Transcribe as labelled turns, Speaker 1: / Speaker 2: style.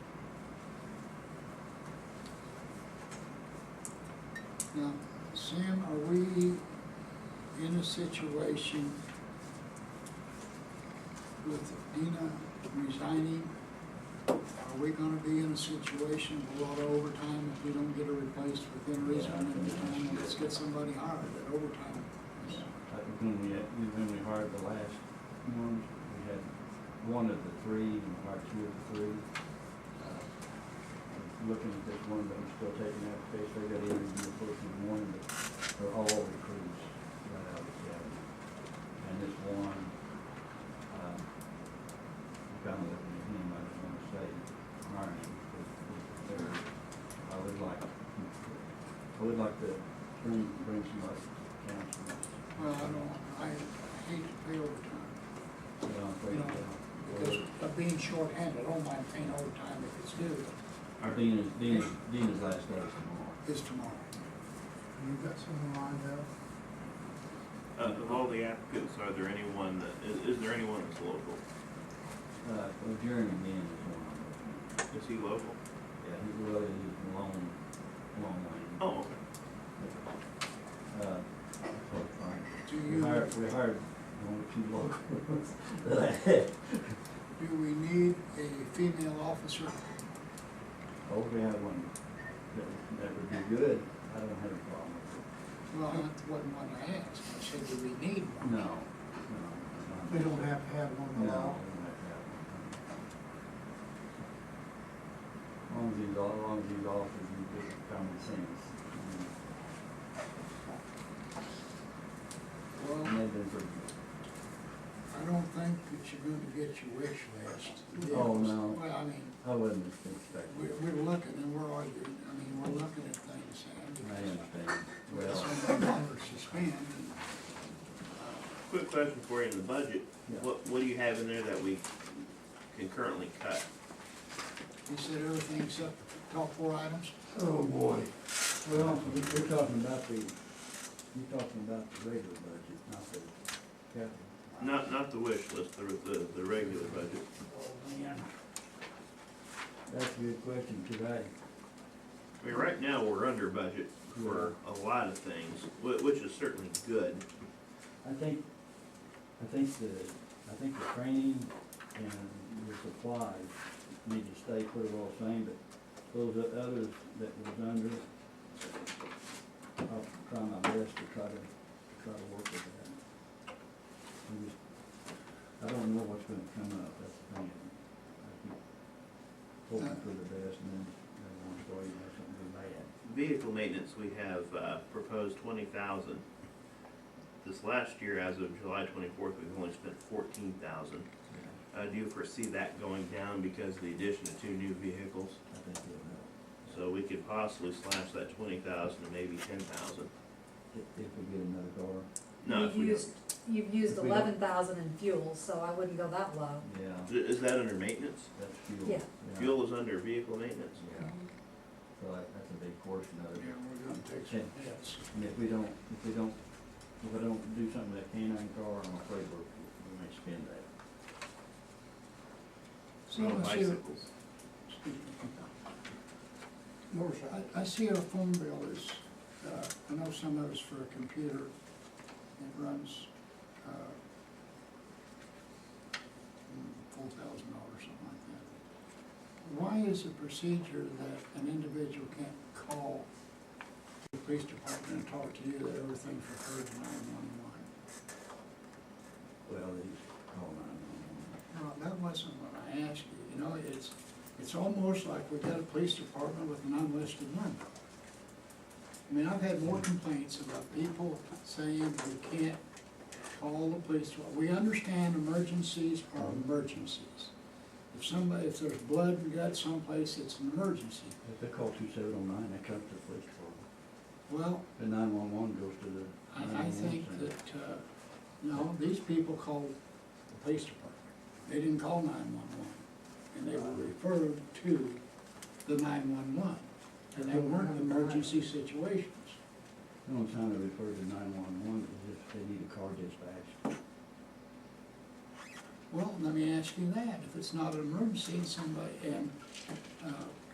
Speaker 1: Now, Sam, are we in a situation with Dina resigning? Are we gonna be in a situation with a lot of overtime if we don't get her replaced within reason and the time? Let's get somebody hired at overtime.
Speaker 2: Like when we, had- when we hired the last one, we had one of the three, and hired two of the three. Uh, Looking at this one, but I'm still taking applications, I got interview for the morning, but they're all recruits right out of the academy. And this one, um, kind of looking at him, I just want to say, hiring him, because they're, I would like, I would like to bring, bring somebody to council.
Speaker 1: Well, I don't, I hate to pay overtime, you know, because
Speaker 2: Or
Speaker 1: of being shorthanded, I don't mind paying overtime if it's due,
Speaker 2: Dean is, Dean is, Dean is last day is tomorrow.
Speaker 1: is tomorrow.
Speaker 3: You got someone lined up?
Speaker 4: Uh, Of all the applicants, are there anyone that, is, is there anyone that's local?
Speaker 2: Uh, well, Jeremy Dean is one of them.
Speaker 4: Is he local?
Speaker 2: Yeah, he really is a long, long way.
Speaker 4: Oh, okay.
Speaker 2: Uh, so fine.
Speaker 1: Do
Speaker 2: We
Speaker 1: you,
Speaker 2: hired, we hired one or two locals.
Speaker 1: do we need a female officer?
Speaker 2: Hope we have one. That, that would be good. I don't have a problem with
Speaker 1: Well, that wasn't what I asked. I said, do we need
Speaker 2: it.
Speaker 1: one?
Speaker 2: No, no.
Speaker 3: We don't have to have one
Speaker 2: No, we don't
Speaker 3: law.
Speaker 2: have to have one. Long as he's, all- long as he's off, he's in good common sense.
Speaker 1: Well,
Speaker 2: And they've been pretty good.
Speaker 1: I don't think that you're gonna get your wish list.
Speaker 2: Oh, no.
Speaker 1: Well, I mean,
Speaker 2: I wasn't expecting
Speaker 1: we're,
Speaker 2: it.
Speaker 1: we're looking and we're arguing, I mean, we're looking at things.
Speaker 2: I understand. Well,
Speaker 1: Somebody longer suspend.
Speaker 4: Quick question for you in the budget.
Speaker 2: Yeah.
Speaker 4: What, what do you have in there that we can currently cut?
Speaker 1: He said everything except the top four items.
Speaker 3: Oh, boy.
Speaker 2: well, you- you're talking about the, you're talking about the regular budget, not the capital.
Speaker 4: Not, not the wish list, the, the, the regular budget.
Speaker 2: That's a good question today.
Speaker 4: I mean, right now, we're under budget for a lot of things, whi- which is certainly good.
Speaker 2: I think, I think the, I think the training and the supplies need to stay pretty well the same, but those o- others that was under, I'll try my best to try to, to try to work with that. I just, I don't know what's gonna come up, that's the thing. I keep Hoping for the best and then, then one story, you have something bad.
Speaker 4: Vehicle maintenance, we have, uh, proposed twenty thousand. This last year, as of July twenty-fourth, we've only spent fourteen thousand. Uh, do you foresee that going down because of the addition of two new vehicles?
Speaker 2: I think it'll help.
Speaker 4: So we could possibly slash that twenty thousand to maybe ten thousand.
Speaker 2: If, if we get another car,
Speaker 4: No, if
Speaker 5: You've
Speaker 4: we don't.
Speaker 5: used, you've used
Speaker 2: If we don't-
Speaker 5: eleven thousand in fuel, so I wouldn't go that low.
Speaker 2: yeah,
Speaker 4: Is that under maintenance?
Speaker 2: that's fuel.
Speaker 5: Yeah.
Speaker 4: Fuel is under vehicle maintenance?
Speaker 2: Yeah, so that, that's a big portion of
Speaker 1: Yeah,
Speaker 2: it.
Speaker 1: we're gonna take some hits.
Speaker 2: And if we don't, if we don't, if we don't do something with that canine car, I'm afraid we're, we may spend that.
Speaker 1: So
Speaker 4: No
Speaker 1: I see,
Speaker 4: bicycles?
Speaker 1: I, I see our phone bill is, uh, I know some of it's for a computer. It runs, uh, four thousand dollars, something like that. Why is the procedure that an individual can't call the police department and talk to you that everything's referred to nine-one-one?
Speaker 2: Well, these call nine one
Speaker 1: No, that wasn't what I asked you, you know, it's, it's almost like we got a police department with an unlisted number. I mean, I've had more complaints about people saying we can't call the police, department. we understand emergencies are emergencies. If somebody, if there's blood and guts someplace, it's an emergency,
Speaker 2: If they call two seven oh nine, that comes to the police department.
Speaker 1: well,
Speaker 2: The nine one one goes to the.
Speaker 1: I, I
Speaker 2: 911
Speaker 1: think
Speaker 2: center.
Speaker 1: that, uh, no, these people called the police department. They didn't call nine-one-one, and they were referred to the nine-one-one, and they weren't emergency situations.
Speaker 2: The only time they refer to nine one one is if they need a car dispatched.
Speaker 1: Well, let me ask you that, if it's not an emergency and uh, somebody, and